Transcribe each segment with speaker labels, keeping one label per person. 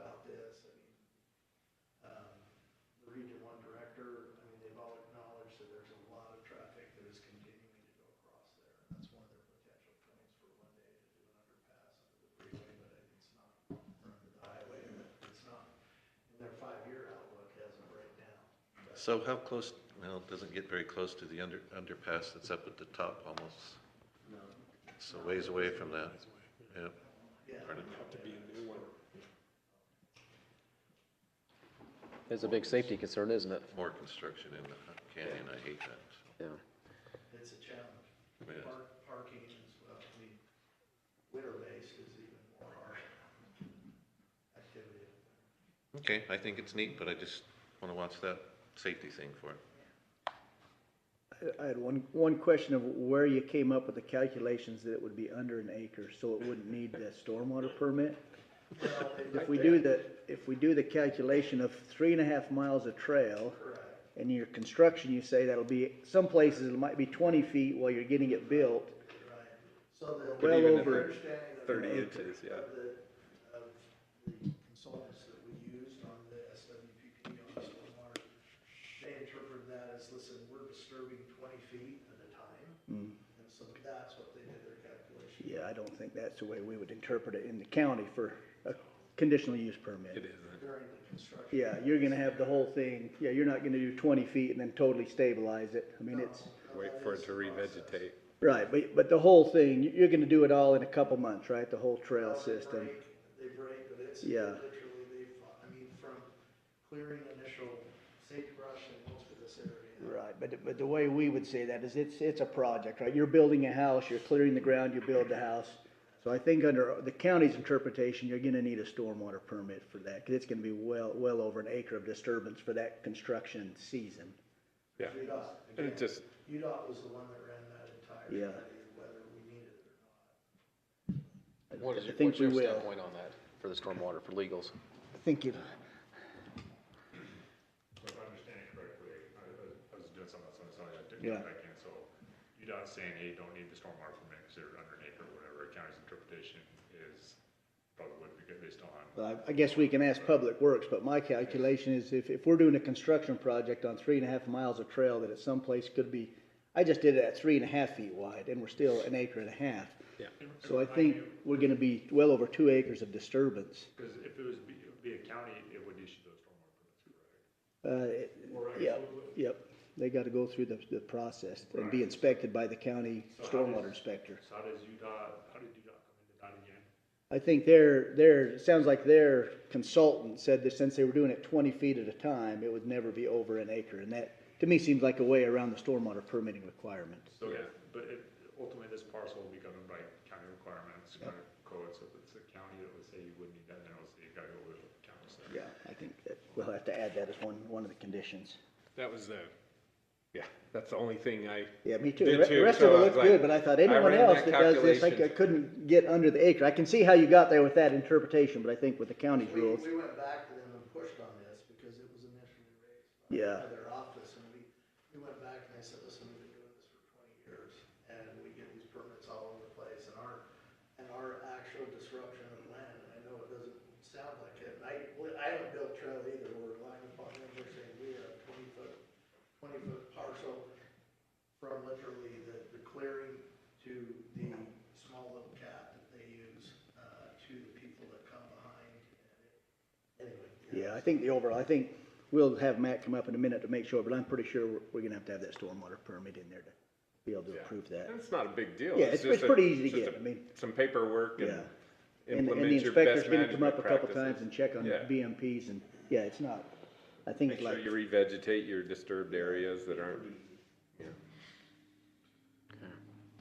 Speaker 1: um,
Speaker 2: So how close, well, it doesn't get very close to the under, underpass that's up at the top almost. It's a ways away from that. Yep. Pardon?
Speaker 3: It's a big safety concern, isn't it?
Speaker 2: More construction in the canyon, I hate that.
Speaker 3: Yeah.
Speaker 1: It's a challenge.
Speaker 2: Yes.
Speaker 1: Park- Parking is, well, I mean, winter base is even more hard activity.
Speaker 2: Okay, I think it's neat, but I just want to watch that safety thing for it.
Speaker 4: I had one, one question of where you came up with the calculations that it would be under an acre, so it wouldn't need the stormwater permit.
Speaker 1: Well,
Speaker 4: If we do the, if we do the calculation of three and a half miles of trail,
Speaker 1: Correct.
Speaker 4: and your construction, you say that'll be, some places it might be twenty feet while you're getting it built.
Speaker 1: Right. So the.
Speaker 4: Well
Speaker 1: the
Speaker 4: over
Speaker 1: understanding of
Speaker 5: 30
Speaker 1: the-
Speaker 5: inches, yeah.
Speaker 1: Of the, of the consultants that we used on the SWPP on the stormwater, they interpreted that as, listen, we're disturbing twenty feet at a time.
Speaker 4: Mm.
Speaker 1: And so that's what they did their calculation.
Speaker 4: Yeah, I don't think that's the way we would interpret it in the county for a conditional use permit.
Speaker 5: It isn't.
Speaker 1: during the construction.
Speaker 4: Yeah, you're gonna have the whole thing, yeah, you're not gonna do twenty feet and then totally stabilize it. I mean, it's,
Speaker 5: Wait for it to revegetate.
Speaker 4: right, but, but the whole thing, you- you're gonna do it all in a couple months, right? The whole trail system.
Speaker 1: They break, but it's
Speaker 4: Yeah.
Speaker 1: literally, they, I mean, from clearing initial sagebrush and most of this area.
Speaker 4: Right, but, but the way we would say that is it's, it's a project, right? You're building a house, you're clearing the ground, you build the house. So I think under the county's interpretation, you're gonna need a stormwater permit for that, cause it's gonna be well, well over an acre of disturbance for that construction season.
Speaker 5: Yeah.
Speaker 1: UDOT,
Speaker 5: And it
Speaker 1: again,
Speaker 5: just,
Speaker 1: UDOT was the one that ran that entire
Speaker 4: Yeah.
Speaker 1: study, whether we needed it or not.
Speaker 3: What is
Speaker 4: I
Speaker 3: your, what's
Speaker 4: think
Speaker 3: your
Speaker 4: we will.
Speaker 3: standpoint on that for the stormwater, for legals?
Speaker 4: I think you,
Speaker 6: If I understand it correctly, I, I was doing something else, and so I didn't
Speaker 4: Yeah.
Speaker 6: come back in, so UDOT's saying, hey, you don't need the stormwater permit, because they're under an acre, or whatever, county's interpretation is probably would be good based on,
Speaker 4: well, I- I guess we can ask Public Works, but my calculation is if, if we're doing a construction project on three and a half miles of trail that at some place could be, I just did it at three and a half feet wide and we're still an acre and a half.
Speaker 5: yeah.
Speaker 4: So I think we're gonna be well over two acres of disturbance.
Speaker 6: because if it was, be, it would be a county, it would issue those stormwater
Speaker 4: Uh,
Speaker 6: permits, correct?
Speaker 4: it- Yep, yep. They gotta go through the, the process and be inspected by the county stormwater inspector.
Speaker 6: So how does UDOT, how did UDOT come into that again?
Speaker 4: I think their, their, it sounds like their consultant said that since they were doing it twenty feet at a time, it would never be over an acre. And that, to me, seems like a way around the stormwater permitting requirement.
Speaker 6: So,
Speaker 5: Yeah.
Speaker 6: but it, ultimately, this parcel will be governed by county requirements, county codes, so if it's the county that would say you wouldn't need that, then it would say you gotta go with what the county said.
Speaker 4: Yeah, I think that we'll have to add that as one, one of the conditions.
Speaker 5: That was the, yeah, that's the only thing I.
Speaker 4: Yeah, me too.
Speaker 5: did
Speaker 4: The rest of it
Speaker 5: so I was
Speaker 4: looked
Speaker 5: like-
Speaker 4: good, but I thought anyone
Speaker 5: ran
Speaker 4: else
Speaker 5: that
Speaker 4: that does this, I
Speaker 5: calculation.
Speaker 4: I couldn't get under the acre. I can see how you got there with that interpretation, but I think with the county's
Speaker 1: We,
Speaker 4: rules.
Speaker 1: we went back to them and pushed on this because it was initially raised
Speaker 4: Yeah.
Speaker 1: by their office and we, we went back and they said, listen, we've been doing this for twenty years and we get these permits all over the place and our, and our actual disruption of land, and I know it doesn't sound like it, and I, well, I haven't built trail either, we're relying upon them, we're saying we are a twenty foot, twenty foot parcel from literally the, the clearing to the small little cat that they use, uh, to the people that come behind. and it- Anyway.
Speaker 4: Yeah, I think the overall, I think we'll have Matt come up in a minute to make sure, but I'm pretty sure we're, we're gonna have to have that stormwater permit in there to be able to approve that.
Speaker 5: And it's not a big deal.
Speaker 4: Yeah, it's-
Speaker 5: just
Speaker 4: it's
Speaker 5: a-
Speaker 4: pretty easy to
Speaker 5: just
Speaker 4: get,
Speaker 5: a-
Speaker 4: I mean-
Speaker 5: Some paperwork and
Speaker 4: Yeah. And, and the
Speaker 5: implement your best
Speaker 4: inspector's gonna
Speaker 5: management
Speaker 4: come up a couple times
Speaker 5: practices.
Speaker 4: and check on
Speaker 5: Yeah.
Speaker 4: BMPs and, yeah, it's not, I think
Speaker 5: Make
Speaker 4: it's
Speaker 5: sure
Speaker 4: like,
Speaker 5: you revegetate your disturbed areas that aren't,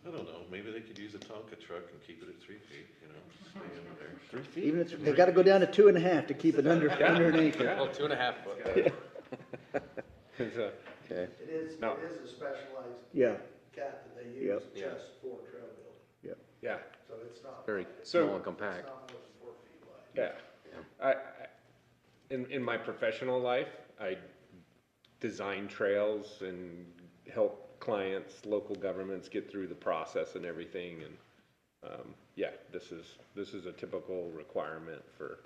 Speaker 2: I don't know, maybe they could use a Tonka truck and keep it at three feet, you know, stay under there. Three feet?
Speaker 4: even if, they gotta go down to two and a half to keep it under, under an acre.
Speaker 3: Well, two and a half foot.
Speaker 5: it's a-
Speaker 1: It is,
Speaker 5: No.
Speaker 1: it is a specialized
Speaker 4: Yeah,
Speaker 1: cat that they use
Speaker 4: Yep.
Speaker 3: Yeah.
Speaker 1: just for trail building,
Speaker 4: yeah.
Speaker 5: yeah,
Speaker 1: so it's not,
Speaker 3: Very
Speaker 1: it's
Speaker 5: So-
Speaker 3: small and compact.
Speaker 1: not more than four feet wide.
Speaker 5: yeah. I, I- in, in my professional life, I design trails and help clients, local governments get through the process and everything and, um, yeah, this is, this is a typical requirement for